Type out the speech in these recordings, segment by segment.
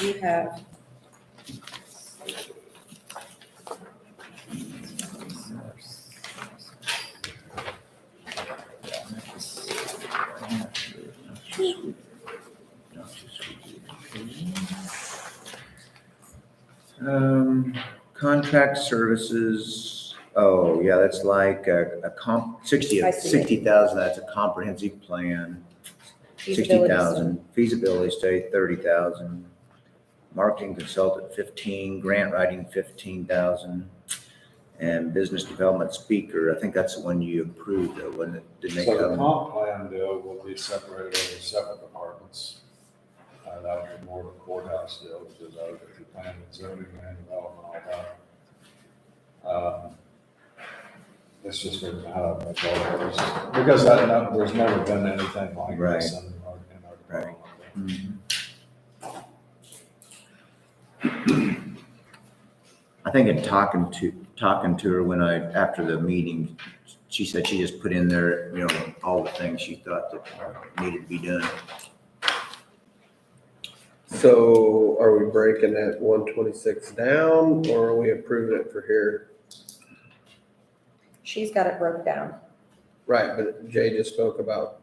We have. Um, contract services, oh, yeah, that's like a, a comp, sixty, I see it. sixty thousand, that's a comprehensive plan. Sixty feasibility study. thousand, feasibility study, thirty thousand, marketing consultant, fifteen, grant writing, fifteen thousand. And business development speaker, I think that's the one you approved, though, wasn't it? Didn't they So the come? comp plan deal will be separated into separate departments. Uh, that would be more of a courthouse deal, which is uh, over to planning and zoning and development, all that. Um, It's just written out of the dollars, because I know there's never been anything like this in our, in our Right. department. Mhm. I think in talking to, talking to her when I, after the meeting, she said she just put in there, you know, all the things she thought that needed to be done. So are we breaking that one twenty-six down or are we approving it for here? She's got it broke down. Right, but Jay just spoke about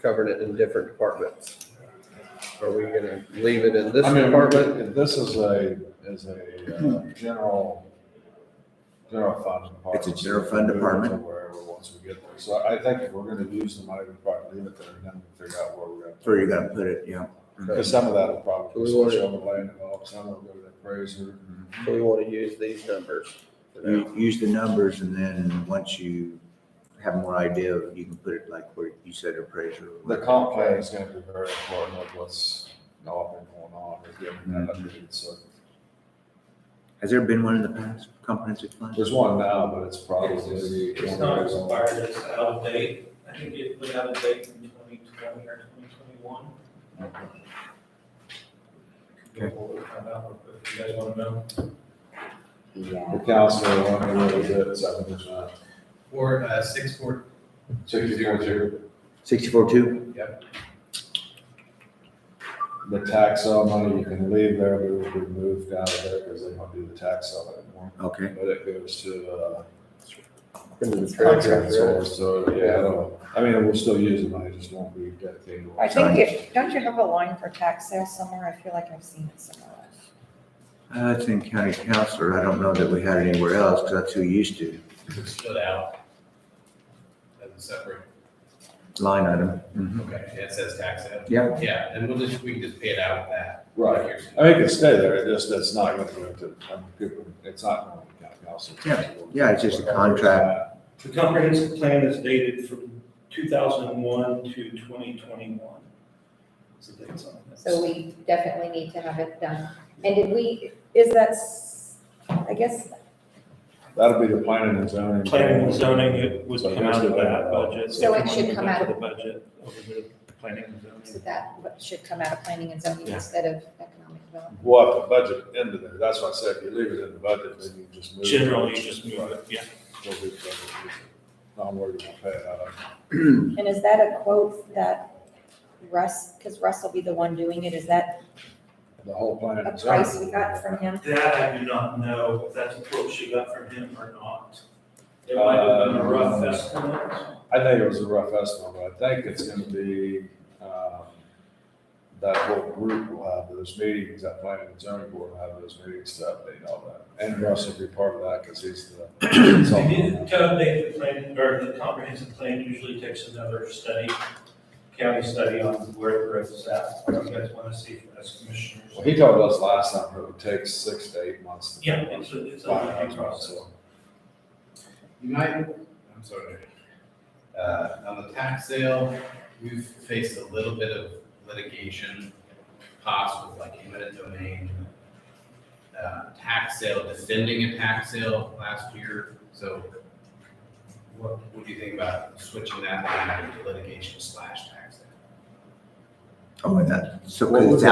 covering it in different departments. Are we gonna leave it in this I mean, we're- department? This is a, is a uh, general, general fund It's department. a general fund department. Move it to Wherever, once we get there. So I think if we're gonna use the money, we probably leave it there and then we figure out where we're gonna. Where you're gonna put it, you know? Because some of that will probably, We want it- some of the land development, some will go to the appraiser. So we wanna use these numbers. You- Uh, Use the numbers and then once you have more idea, you can put it like where you said appraiser. The comp plan is gonna be very important with what's all been going on, is getting that updated. So Has there been one in the past, comprehensive plan? there's one now, but it's probably. It's not expired, it's out of date. I think it was out of date in twenty twenty or twenty twenty-one. If you guys want to know. Yeah. The council, I don't know what it is, seven percent. Four, uh, six, four, Sixty-four two. Sixty-four two? The tax sale money, you can leave there, but it will be moved out of there because they don't do the tax sale anymore. Okay. But it goes to, uh, Into the contract contract, right? source, so, yeah, I don't- I mean, we'll still use the money, just won't be dedicated. I think it, don't you have a line for tax sale somewhere? I feel like I've seen it somewhere else. Uh, It's in county counselor. I don't know that we had it anywhere else because that's who used to, it's split out. As a separate, line item. Mm-hmm. Mhm. okay, it says tax sale. Yeah. Yeah, and we'll just, we can just pay it out with that. Right. I mean, it can stay there, it just, it's not going to go to, I'm good, it's not going to county council. Yeah, it's just a contract. The comprehensive plan is dated from two thousand and one to twenty twenty-one. So that's on this. So we definitely need to have it done. And did we, is that, s- I guess, That'll be the planning and zoning. Planning and zoning, it would So come out of that's- that budget. So it If should you come out want to go into The budget over the planning and so zoning. that should come out of planning and zoning Yeah. instead of economic development? We'll have to budget into there, that's why I said if you leave it in the budget, then you just move. it. Generally, you just move it, yeah. We'll do it. Not worried about paying out of. And is that a quote that Russ, because Russ will be the one doing it, is that The whole planning a and zoning. price we got from him? That I do not know if that's a quote she got from him or not. It might have been a rough Um, estimate. I think it was a rough estimate, but I think it's gonna be, um, that whole group will have those meetings, that planning and zoning board will have those meetings to update all that. And Russ will be part of that, cause he's the. They consultant on did that. to update the plan, or the comprehensive plan usually takes another study, county study on where the growth is at, what you guys want to see from us commissioners. Well, He told us last time it would take six to eight months. to Yeah, it's a, it's a find review out, process. so. United, I'm sorry. Uh, on the tax sale, we've faced a little bit of litigation costs with like eminent domain. Uh, tax sale, defending a tax sale last year, so what, what do you think about switching that line item to litigation slash tax sale? Oh, and that, so What 'cause was it's it?